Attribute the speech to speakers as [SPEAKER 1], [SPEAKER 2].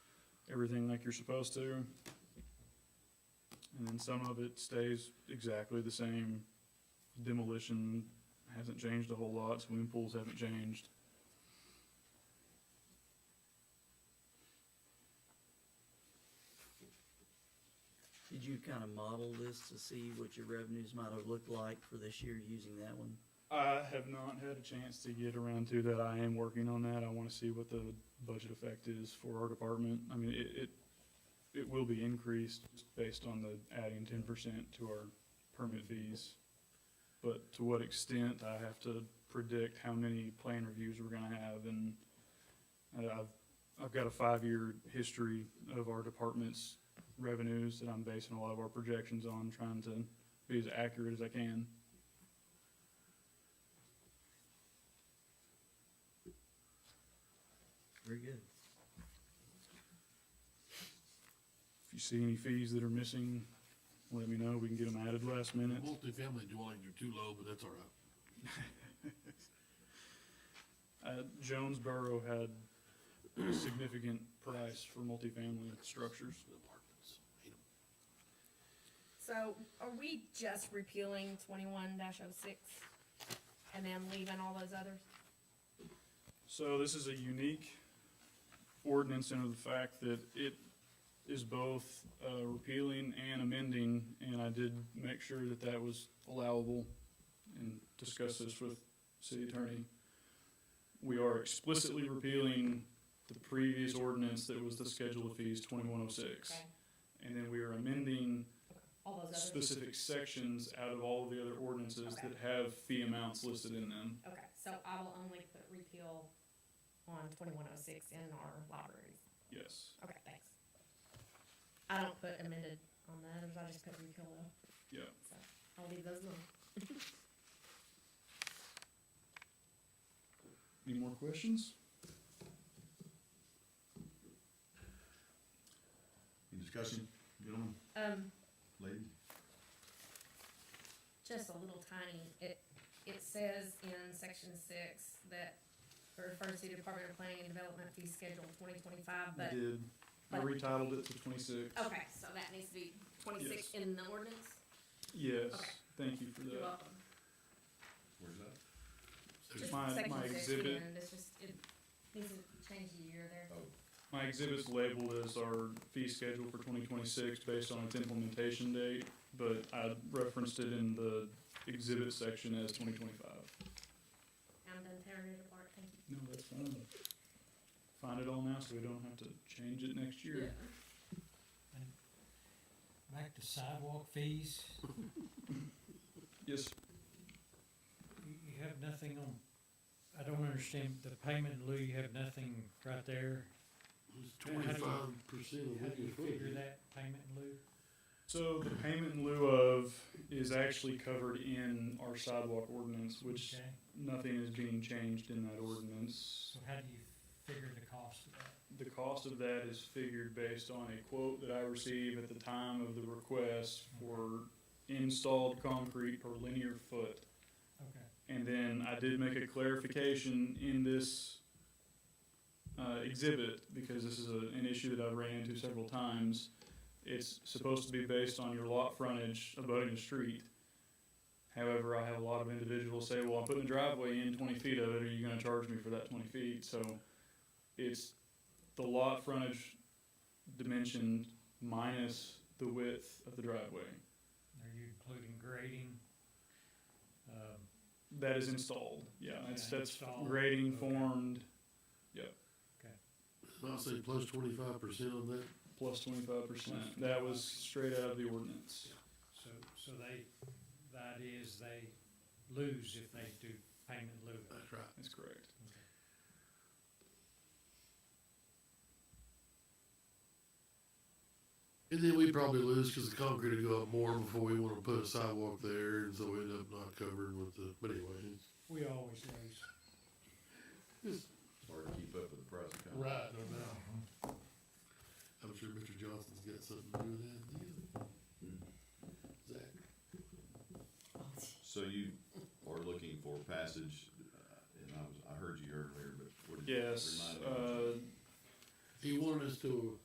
[SPEAKER 1] everything like you're supposed to. And then some of it stays exactly the same. Demolition hasn't changed a whole lot, swimming pools haven't changed.
[SPEAKER 2] Did you kind of model this to see what your revenues might have looked like for this year using that one?
[SPEAKER 1] I have not had a chance to get around to that. I am working on that. I wanna see what the budget effect is for our department. I mean, it, it, it will be increased based on the adding ten percent to our permit fees. But to what extent, I have to predict how many plan reviews we're gonna have and uh, I've, I've got a five-year history of our department's revenues that I'm basing a lot of our projections on, trying to be as accurate as I can.
[SPEAKER 2] Very good.
[SPEAKER 1] If you see any fees that are missing, let me know, we can get them added last minute.
[SPEAKER 3] Multi-family dwellings are too low, but that's all right.
[SPEAKER 1] Uh, Jonesboro had a significant price for multifamily structures.
[SPEAKER 3] Apartments, hate 'em.
[SPEAKER 4] So are we just repealing twenty-one 6 and then leaving all those others?
[SPEAKER 1] So this is a unique ordinance in the fact that it is both uh, repealing and amending, and I did make sure that that was allowable and discuss this with city attorney. We are explicitly repealing the previous ordinance that was the schedule of fees twenty-one oh six. And then we are amending
[SPEAKER 4] All those others?
[SPEAKER 1] specific sections out of all of the other ordinances that have fee amounts listed in them.
[SPEAKER 4] Okay, so I will only put repeal on twenty-one oh six in our libraries.
[SPEAKER 1] Yes.
[SPEAKER 4] Okay, thanks. I don't put amended on the others, I just put repeal though.
[SPEAKER 1] Yeah.
[SPEAKER 4] So I'll leave those alone.
[SPEAKER 1] Any more questions?
[SPEAKER 5] Any discussion, gentlemen,
[SPEAKER 4] Um,
[SPEAKER 5] ladies?
[SPEAKER 4] just a little tiny, it, it says in section six that it refers to Department of Planning and Development fee schedule twenty twenty-five, but,
[SPEAKER 1] did. I
[SPEAKER 4] but-
[SPEAKER 1] retitled it to twenty-six.
[SPEAKER 4] okay, so that needs to be twenty-six
[SPEAKER 1] Yes.
[SPEAKER 4] in the ordinance?
[SPEAKER 1] Yes,
[SPEAKER 4] Okay.
[SPEAKER 1] thank you for
[SPEAKER 4] You're
[SPEAKER 1] that.
[SPEAKER 4] welcome.
[SPEAKER 5] Where's that?
[SPEAKER 4] Just
[SPEAKER 1] my-
[SPEAKER 4] section
[SPEAKER 1] my
[SPEAKER 4] six,
[SPEAKER 1] exhibit.
[SPEAKER 4] and It's just, it needs to change the year there.
[SPEAKER 5] Oh,
[SPEAKER 1] My exhibit's labeled as our fee schedule for twenty twenty-six based on its implementation date, but I referenced it in the exhibit section as twenty twenty-five.
[SPEAKER 4] I'm done tearing it apart, thank you.
[SPEAKER 1] No, that's fine. Find it all now so we don't have to change it next year.
[SPEAKER 6] Back to sidewalk fees,
[SPEAKER 1] Yes,
[SPEAKER 6] you, you have nothing on, I don't understand, the payment in lieu, you have nothing right there.
[SPEAKER 3] It's twenty-five percent of
[SPEAKER 6] How do you
[SPEAKER 3] Wiggins
[SPEAKER 6] figure
[SPEAKER 3] Road.
[SPEAKER 6] that payment in lieu?
[SPEAKER 1] so the payment in lieu of is actually covered in our sidewalk ordinance, which
[SPEAKER 6] Okay,
[SPEAKER 1] nothing is being changed in that ordinance.
[SPEAKER 6] So how do you figure the cost of that?
[SPEAKER 1] The cost of that is figured based on a quote that I receive at the time of the request for installed concrete per linear foot.
[SPEAKER 6] Okay,
[SPEAKER 1] And then I did make a clarification in this uh, exhibit, because this is a- an issue that I've ran into several times. It's supposed to be based on your lot frontage abutting the street. However, I have a lot of individuals say, well, I'm putting a driveway in twenty feet of it, are you gonna charge me for that twenty feet? So it's the lot frontage dimension minus the width of the driveway.
[SPEAKER 6] are you including grading? Um,
[SPEAKER 1] That is installed, yeah, that's,
[SPEAKER 6] Yeah,
[SPEAKER 1] that's
[SPEAKER 6] installed.
[SPEAKER 1] grading
[SPEAKER 6] Okay.
[SPEAKER 1] formed
[SPEAKER 3] I'll say plus twenty-five percent on that.
[SPEAKER 1] plus twenty-five percent. That was straight out of the ordinance.
[SPEAKER 6] so, so they, the idea is they lose if they do payment in lieu.
[SPEAKER 3] That's right.
[SPEAKER 1] That's correct.
[SPEAKER 3] And then we probably lose because the concrete will go up more before we want to put a sidewalk there, and so we end up not covering with the, but anyway. it's-
[SPEAKER 6] We always lose.
[SPEAKER 5] it's hard to keep up with the price of concrete.
[SPEAKER 3] Right, no doubt. I'm sure Mr. Johnson's got something to do with that.
[SPEAKER 5] Hmm.
[SPEAKER 3] yeah. Zach?
[SPEAKER 5] So you are looking for passage, uh, and I was, I heard you earlier, but what did you?
[SPEAKER 1] Yes,
[SPEAKER 5] remind me what you-
[SPEAKER 1] uh,
[SPEAKER 3] He wanted us to